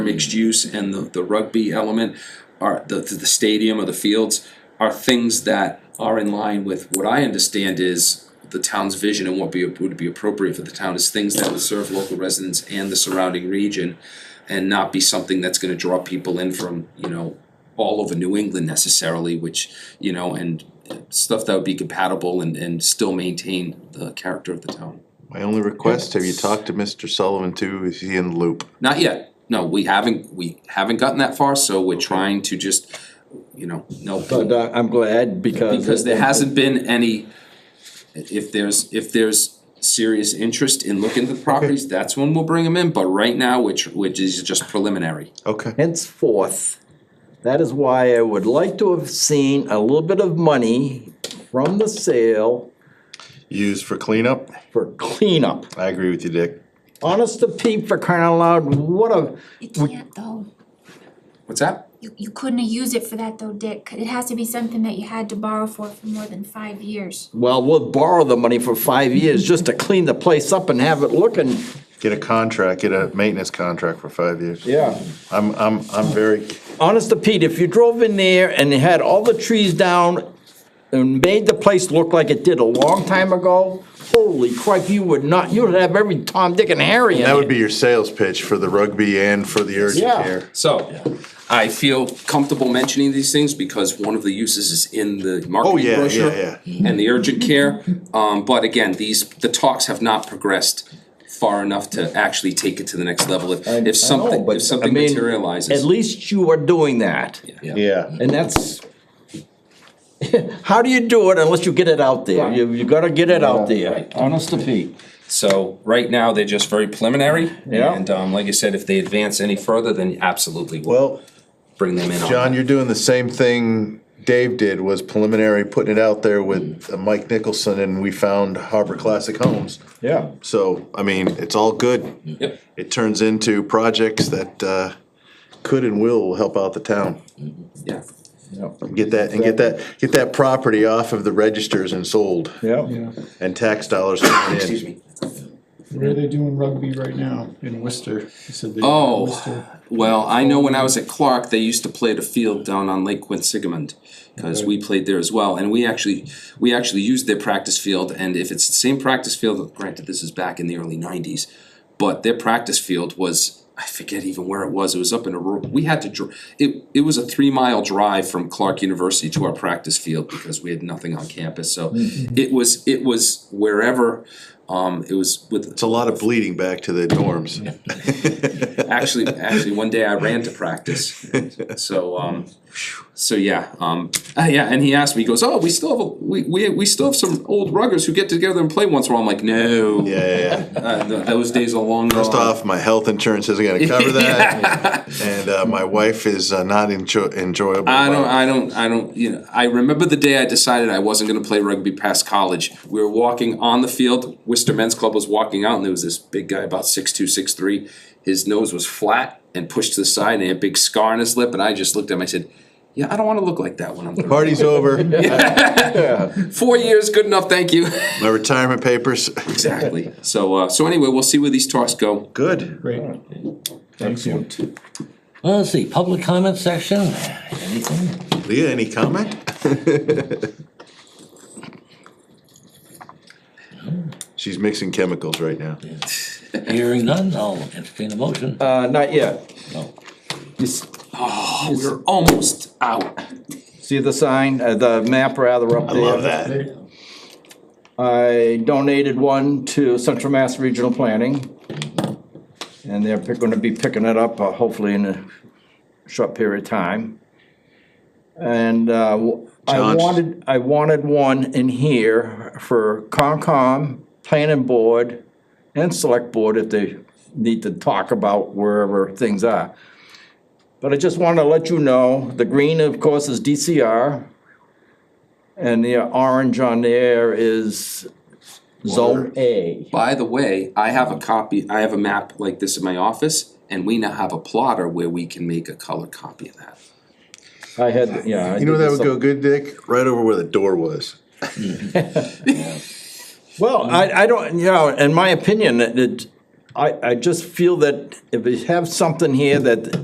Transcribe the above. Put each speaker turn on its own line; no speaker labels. mixed use and the, the rugby element are the, the stadium or the fields are things that are in line with what I understand is the town's vision and what be, would be appropriate for the town is things that would serve local residents and the surrounding region and not be something that's gonna draw people in from, you know, all over New England necessarily, which, you know, and stuff that would be compatible and, and still maintain the character of the town.
My only request, have you talked to Mr. Sullivan too? Is he in the loop?
Not yet. No, we haven't, we haven't gotten that far, so we're trying to just, you know, no.
But uh, I'm glad because.
Because there hasn't been any, if there's, if there's serious interest in looking at the properties, that's when we'll bring them in, but right now, which, which is just preliminary.
Okay.
Henceforth, that is why I would like to have seen a little bit of money from the sale
Used for cleanup?
for cleanup.
I agree with you, Dick.
Honest to Pete, for crying out loud, what a,
You can't though.
What's that?
You, you couldn't have used it for that though, Dick. 'cause It has to be something that you had to borrow for for more than five years.
well, we'll borrow the money for five years just to clean the place up and have it looking.
Get a contract, get a maintenance contract for five years.
Yeah.
I'm, I'm, I'm very,
Honest to Pete, if you drove in there and they had all the trees down and made the place look like it did a long time ago, holy crap, you would not, you would have every Tom, Dick and Harry in
that would
there.
be your sales pitch for the rugby and for the urgent
Yeah.
care.
So, I feel comfortable mentioning these things because one of the uses is in the
Oh,
marketing
yeah,
brochure.
yeah, yeah.
And the urgent care, um, but again, these, the talks have not progressed far enough to actually take it to the next level. If,
I know,
if something,
but,
if something
I mean, At
materializes.
least you are doing that.
Yeah.
And that's, how do you do it unless you get it out there? You, you gotta get it out there. Honest to Pete.
So right now, they're just very preliminary.
Yeah.
And um, like I said, if they advance any further, then absolutely we'll
Well,
bring them in on.
John,
that.
you're doing the same thing Dave did, was preliminary, putting it out there with uh, Mike Nicholson, and we found Harbor Classic Homes.
Yeah.
So, I mean, it's all good.
Yep.
It turns into projects that, uh, could and will help out the town.
Yeah.
Get that, and get that, get that property off of the registers and sold,
Yeah.
Yeah,
and tax dollars coming
Excuse
in.
me.
where are they doing rugby right now? In Worcester. He said they were in
Oh,
Worcester.
well, I know when I was at Clark, they used to play at a field down on Lake Quinsigamond. Cause we played there as well, and we actually, we actually used their practice field, and if it's the same practice field, granted, this is back in the early nineties. But their practice field was, I forget even where it was, it was up in a rural, we had to, dr- it, it was a three mile drive from Clark University to our practice field because we had nothing on campus, so. It was, it was wherever, um, it was with
It's a lot of bleeding back to the dorms.
actually, actually, one day I ran to practice. So, um, so yeah, um, ah, yeah. And he asked me, he goes, "Oh, we still have a, we, we we still have some old ruggers who get together and play once in a while." I'm like, "No,
Yeah, yeah, yeah.
uh, th- those days are long
First
gone."
off, my health insurance isn't gonna cover that, and, uh, my wife is uh, not enjoy- enjoyable.
I don't,
about it.
I don't, I don't, you know, I remember the day I decided I wasn't gonna play rugby past college. We were walking on the field, Worcester Men's Club was walking out and there was this big guy about six two, six three. His nose was flat and pushed to the side and he had a big scar on his lip and I just looked at him, I said, yeah, I don't wanna look like that when I'm thirty."
Party's over,
Four years, good enough, thank you.
my retirement papers,
Exactly. So, uh, so anyway, we'll see where these talks go.
good.
Great. Thank you.
Well, Let's see, public comment section, anything?
Leah, any comment? She's mixing chemicals right now.
Hearing none, I'll entertain a motion.
Uh, not yet.
No.
You s-
Oh, we're almost out.
See the sign, uh, the map rather up
I
there?
love that.
I donated one to Central Mass Regional Planning. And they're pick- gonna be picking it up uh, hopefully in a short period of time. And uh, w- I
John.
wanted, I wanted one in here for Concom, Planning Board, and Select Board if they need to talk about wherever things are. But I just wanna let you know, the green, of course, is DCR. And the orange on there is Zone A.
By the way, I have a copy, I have a map like this in my office, and we now have a plotter where we can make a color copy of that.
I had, yeah. I
You know
did
that
this
would go
up-
good, Dick? Right over where the door was.
Well, I, I don't, you know, in my opinion, it- it, I, I just feel that if we have something here that